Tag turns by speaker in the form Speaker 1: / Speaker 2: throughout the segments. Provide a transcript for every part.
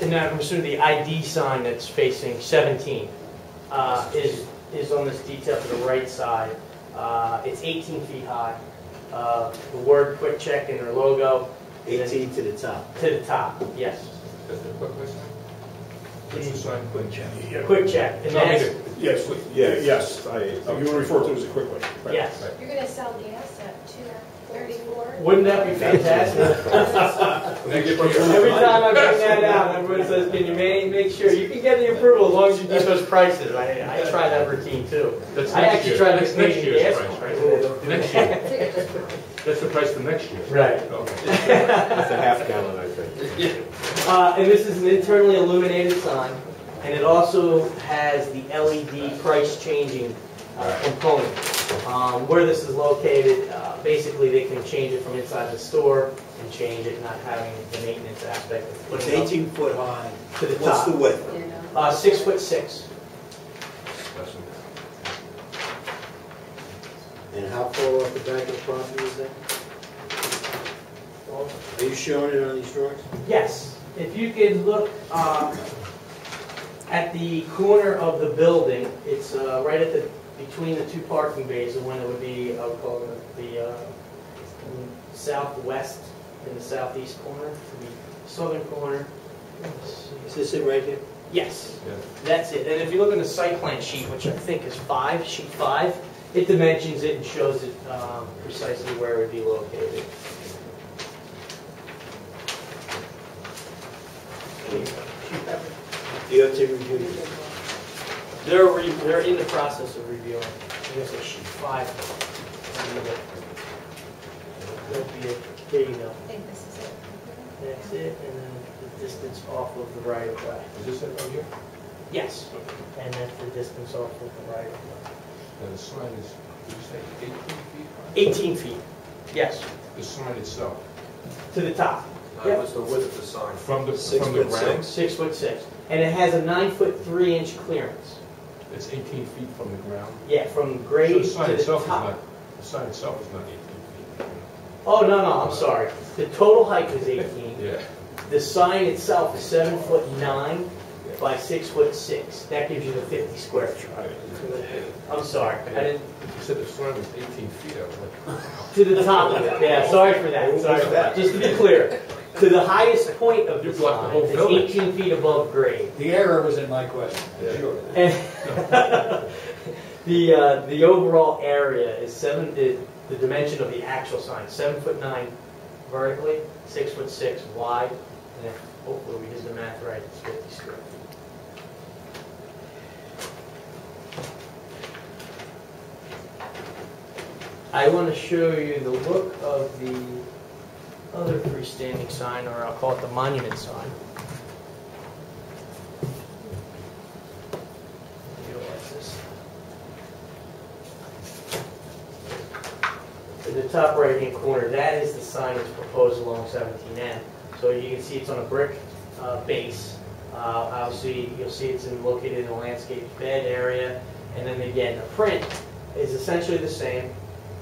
Speaker 1: And now I'm assuming the ID sign that's facing 17 uh, is, is on this detail to the right side. Uh, It's 18 feet high. Uh, The word "Quick Check" in their logo
Speaker 2: Eighteen to the top.
Speaker 1: to the top, yes.
Speaker 3: That's the quick question. What's the sign, quick check?
Speaker 1: Quick Check. And that's,
Speaker 4: Yes, we- yeah, yes, I, you refer to it as a quick one. right.
Speaker 1: yes.
Speaker 5: You're gonna sell the asset to thirty-four?
Speaker 1: Wouldn't that be fantastic?
Speaker 3: Next year.
Speaker 1: Every time I bring that out, everyone says, can you ma- make sure, you can get the approval as long as you do those prices. I, I try that routine too.
Speaker 3: That's
Speaker 1: I
Speaker 3: next
Speaker 1: actually
Speaker 3: year.
Speaker 1: tried
Speaker 3: That's
Speaker 1: to
Speaker 3: Next
Speaker 1: make
Speaker 3: year's
Speaker 1: it
Speaker 3: price, right?
Speaker 1: ask.
Speaker 3: Next year, that's the price for next year.
Speaker 1: Right.
Speaker 3: Okay.
Speaker 2: That's a half gallon, I think.
Speaker 1: Uh, and this is an internally illuminated sign, and it also has the LED price changing uh, component. Um, where this is located, uh, basically they can change it from inside the store and change it, not having the maintenance aspect of
Speaker 2: It's
Speaker 1: putting it
Speaker 2: eighteen foot high.
Speaker 1: up to the
Speaker 2: What's the
Speaker 1: top.
Speaker 2: width?
Speaker 1: Uh, six foot six,
Speaker 2: And how far off the back of the property is that? Are you showing it on these drawings?
Speaker 1: yes. If you could look, uh, at the corner of the building, it's, uh, right at the, between the two parking bays, the one that would be, I would call it the, uh, southwest in the southeast corner, the southern corner. Let's see.
Speaker 2: Is this it right here?
Speaker 1: Yes,
Speaker 3: Yeah.
Speaker 1: that's it. And if you look in the site plan sheet, which I think is five, sheet five, it dimensions it and shows it um, precisely where it would be located.
Speaker 2: DOT reviewed it.
Speaker 1: They're, re- they're in the process of reviewing. I guess it's sheet five. That'll be it. There you go.
Speaker 5: I think this is it.
Speaker 1: That's it, and then the distance off of the right of way.
Speaker 3: Is this it right here?
Speaker 1: Yes, and that's the distance off of the right of way.
Speaker 3: Now, the sign is, did you say eighteen
Speaker 1: 18
Speaker 3: feet high?
Speaker 1: feet, yes,
Speaker 3: The sign itself,
Speaker 1: to the top.
Speaker 6: Uh, What's the width of the sign?
Speaker 3: from the,
Speaker 2: Six
Speaker 3: from the
Speaker 2: foot
Speaker 3: ground,
Speaker 2: six.
Speaker 1: Six foot six, and it has a nine foot three inch clearance.
Speaker 3: it's eighteen feet from the ground.
Speaker 1: Yeah, from
Speaker 3: So
Speaker 1: grade
Speaker 3: the
Speaker 1: to
Speaker 3: sign
Speaker 1: the
Speaker 3: itself is not,
Speaker 1: top.
Speaker 3: the sign itself is not eighteen feet.
Speaker 1: Oh, no, no, I'm sorry. The total height is 18.
Speaker 3: Yeah.
Speaker 1: The sign itself is seven foot nine by six foot six. That gives you the 50 square feet.
Speaker 3: Right.
Speaker 1: I'm sorry, I didn't,
Speaker 3: You said the sign was eighteen feet, I was like,
Speaker 1: to the top of it, yeah, sorry for that, sorry for that. Just to be clear, to the highest point of
Speaker 3: You
Speaker 1: the
Speaker 3: blocked the
Speaker 1: sign,
Speaker 3: whole
Speaker 1: it's
Speaker 3: building.
Speaker 1: 18 feet above grade.
Speaker 7: The error was in my question,
Speaker 3: Yeah.
Speaker 7: sure.
Speaker 1: And the, uh, the overall area is seven, the, the dimension of the actual sign, seven foot nine vertically, six foot six wide, and then hopefully we did the math right, it's fifty square feet. I want to show you the look of the other freestanding sign, or I'll call it the monument sign. Realize this. In the top right-hand corner, that is the sign that's proposed along 17N. So you can see it's on a brick uh, base. Uh, Obviously, you'll see it's in- located in a landscaped bed area. And then again, the print is essentially the same.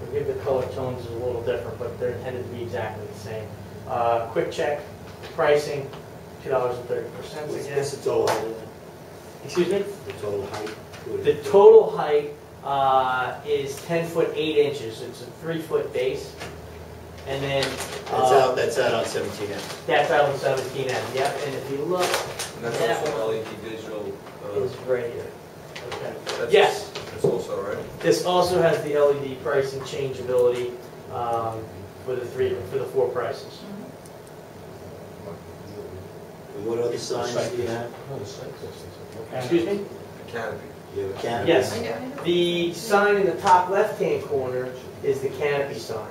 Speaker 1: Forgive the color tones is a little different, but they're intended to be exactly the same. Uh, Quick check, pricing, $2.30
Speaker 2: What's
Speaker 1: again.
Speaker 2: what's the total height of that?
Speaker 1: Excuse me?
Speaker 2: The total height?
Speaker 1: The total height uh, is 10 foot 8 inches, it's a 3 foot base. And then,
Speaker 2: That's
Speaker 1: uh,
Speaker 2: out, that's out on seventeen M.
Speaker 1: that's out on 17 M, yep, and if you look,
Speaker 6: And that's also LED visual,
Speaker 1: it's
Speaker 6: uh,
Speaker 1: right here. Okay.
Speaker 6: that's-
Speaker 1: Yes.
Speaker 6: That's also, right?
Speaker 1: This also has the E LED pricing changeability um, for the three, for the four prices.
Speaker 2: And what other signs do you have?
Speaker 3: no, the sign doesn't.
Speaker 1: Excuse me?
Speaker 6: The canopy.
Speaker 2: Do you have a canopy?
Speaker 1: Yes. The sign in the top left-hand corner is the canopy sign.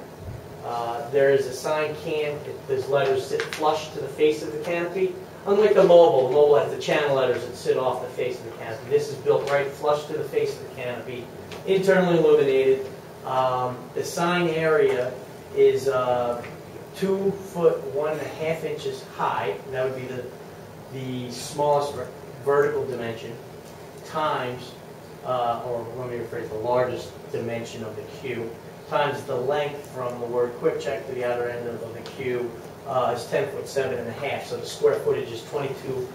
Speaker 1: Uh, There is a sign can, those letters sit flush to the face of the canopy. Unlike the mobile, the mobile has the channel letters that sit off the face of the canopy. This is built right flush to the face of the canopy, internally illuminated. Um, The sign area is uh, two foot, one and a half inches high, and that would be the, the smallest ver- vertical dimension, times uh, or let me rephrase, the largest dimension of the queue, times the length from the word quick check to the outer end of of the queue uh, is 10 foot seven and a half. so the square footage is 22